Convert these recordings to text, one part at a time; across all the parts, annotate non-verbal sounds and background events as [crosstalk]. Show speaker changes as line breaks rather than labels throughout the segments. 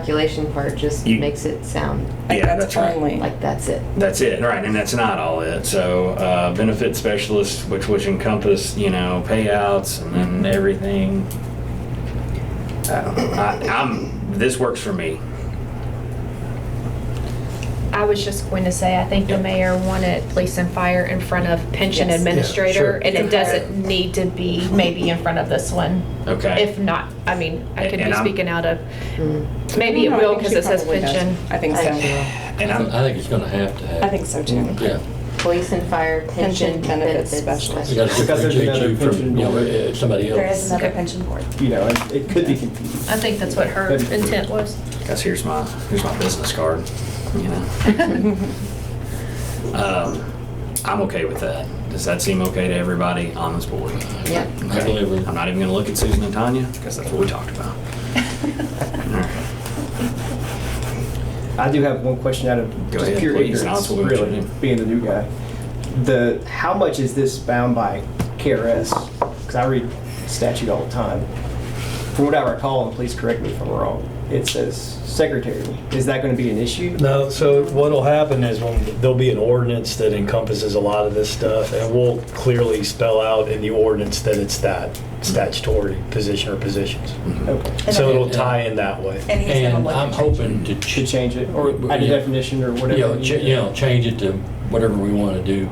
calculation part just
You-
makes it sound
Yeah, that's right.
only.
like that's it.
That's it, right, and that's not all it. So uh, benefit specialists, which which encompass you know payouts and then everything. Uh, I, I'm this works for me.
I was just going to say, I think the
Yeah.
mayor wanted police and fire in front of pension
Yes.
administrator,
Yeah, sure.
and it doesn't need to be maybe in front of this one.
Okay.
If not, I mean, I could
And
be
I'm-
speaking out of,
Mm.
maybe it
No, I
will
think
because
she
it says
probably does.
pension.
I think so.
Okay.
and I'm,
I think it's gonna have to happen.
I think so too.
Yeah.
Police and fire pension
Pension benefits
benefits
specialist.
We gotta
specialist.
Because there's
differentiate you
another
from, you know,
pension
uh, somebody
There is
else.
another
Okay.
pension
[laughs]
board.
you know, and it could be confusing.
I think that's what her
That'd be good.
intent
[laughs]
was.
guys, here's my here's my business card. You know, um, I'm okay with that. Does that seem okay to everybody on this board?
Yeah.
I believe it.
I'm not even going to look at Susan and Tanya because that's what we talked about. All right.
I do have one question out of
Go
just
ahead,
pure
please.
ignorance,
I'll put it
really,
in.
being the new guy. The how much is this bound by KRS? Because I read statute all the time. From what I recall, and please correct me if I'm wrong, it says secretary. Is that going to be an issue?
No, so what'll happen is when, there'll be an ordinance that encompasses a lot of this stuff, and we'll clearly spell out in the ordinance that it's that statutory position or positions.
Okay.
So it'll tie in that
And
way.
he's gonna
And
look
I'm
at-
hoping to.
To change it, or
Yeah.
add a definition, or whatever.
You know,
you-
ch- you know, change it to whatever we wanna do.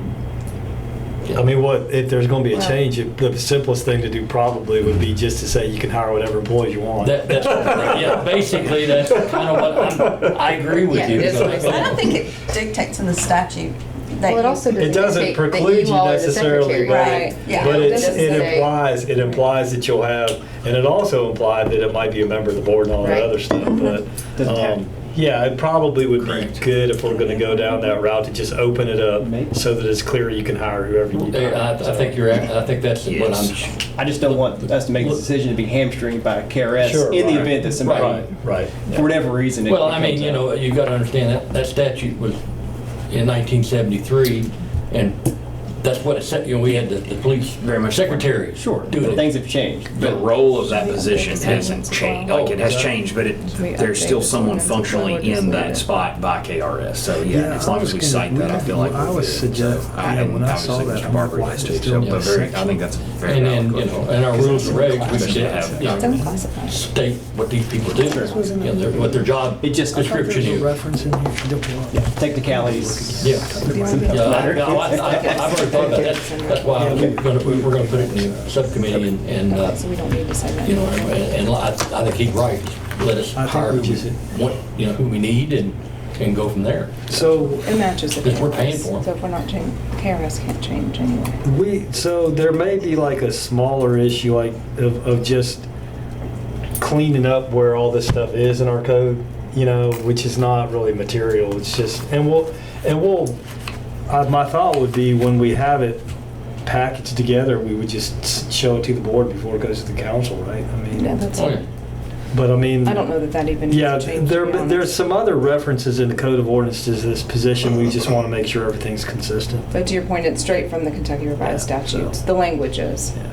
I mean, what, if there's gonna be a change, it- the simplest thing to do probably would be just to say you can hire whatever employees you want.
That, that's, yeah, basically, that's kind of what
[laughs]
I'm, I agree
Yeah,
with you.
it is what I said.
I don't think it dictates in the statute that
Well, it
you-
also doesn't,
It doesn't
dictate that
preclude you
all are the
necessarily,
secretary.
but
Right,
it,
yeah.
but it's,
Doesn't
it
say-
implies, it implies that you'll have, and it also implied that it might be a member of the board and all
Right. Mm-hmm.
that other stuff, but,
Doesn't have to.
um, yeah, it probably would
Correct.
be good if we're gonna go down that route to just open it up
Maybe.
so that it's clear you can hire whoever you need. to
Yeah, I,
hire,
I
so.
think you're, act- I think that's what I'm,
I just don't want us to make a decision to be hamstringed by KRS
Sure,
in the
right.
event that somebody,
Right, right.
for whatever reason, it
Well, I mean,
becomes
you
a-
know, you gotta understand that, that statute was in nineteen seventy-three, and that's what it said, you know, we had the, the police.
Very much so.
Secretary.
Sure,
Doing it.
things have changed.
the role of that position hasn't changed, like it has
Oh, yeah.
changed, but it,
we
there's
update
still
the
someone
ordinance with what
functionally
is
in
needed?
that spot by KRS, so yeah,
Yeah,
as
I
long
was
as we
gonna-
cite that, I
yeah,
feel like.
I
we're
was
good.
suggest-
I-
yeah,
and
when I
obviously
saw that,
Mr.
I'm like,
Barber
why
has
is
to,
it
so,
still
but
in
very- I
section?
think that's a very.
And
valid
then, you
question.
know, in our rules and regs, we should have, you
It's
know,
unclassified.
state what these people do,
was in
you know, their- what their job
It just- I thought
description
There's a
is.
reference in here for Diplomat.
Yeah, technicalities.
Yeah. Yeah, I- no, I- I- I've already thought about that, that's why we're gonna, we were gonna put it in the subcommittee and, and, uh,
Okay, so we don't need to say that.
you know, and, and I, I think he's right, let us
I think
hire
we
who
should.
we want, you know, who we need and, and go from there.
So
It matches the
Because we're paying for 'em.
KRS. So if we're not changing, KRS can't change anyway.
We, so there may be like a smaller issue like of, of just cleaning up where all this stuff is in our code, you know, which is not really material. It's just, and we'll, and we'll, uh, my thought would be when we have it packaged together, we would just s- show it to the board before it goes to the council, right? I
Yeah,
mean,
that's,
Oh, yeah.
I
but I mean.
don't know that that even
Yeah,
needs to change.
there,
to be
there's
honest.
some other references in the code of ordinances to this position. We just want to make sure everything's consistent.
But to your point, it's straight from the Kentucky Revised
Yeah, so-
Statutes, the language is.
Yeah.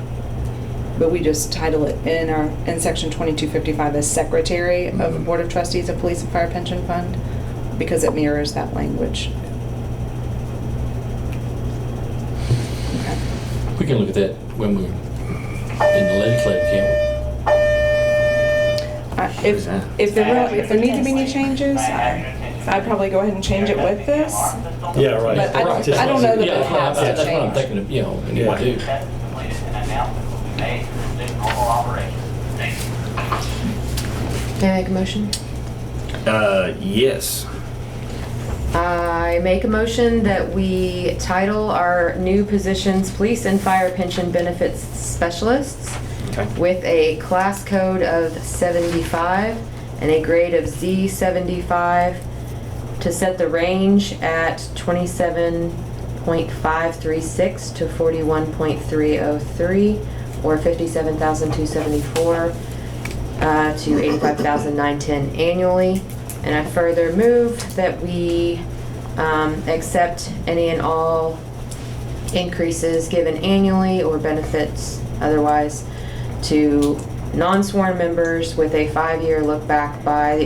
But we just title it in our, in section 2255 as Secretary of
Mm-hmm.
the Board of Trustees of Police and Fire Pension Fund because it mirrors that language.
We can look at that when we, in the legislative, can't
I- If, if there, were- if there need to be any changes, I'd probably go ahead and change it with this.
Yeah, right.
But I don't-
Just-
I don't know
we?
that
Yeah,
it
that's what I'm-
has to
That's what I'm
change.
thinking of, you know, we need
Yeah.
to do.
That's the latest announcement will be made for the normal operation. Thank you.
Can I make a motion?
Uh, yes,
I make a motion that we title our new positions Police and Fire Pension Benefits Specialists
okay,
with a class code of 75 and a grade of Z75 to set the range at 27.536 to 41.303 or 57,274 uh, to 85,910 annually. And I further move that we um, accept any and all increases given annually or benefits otherwise to non-sworn members with a five-year look back by the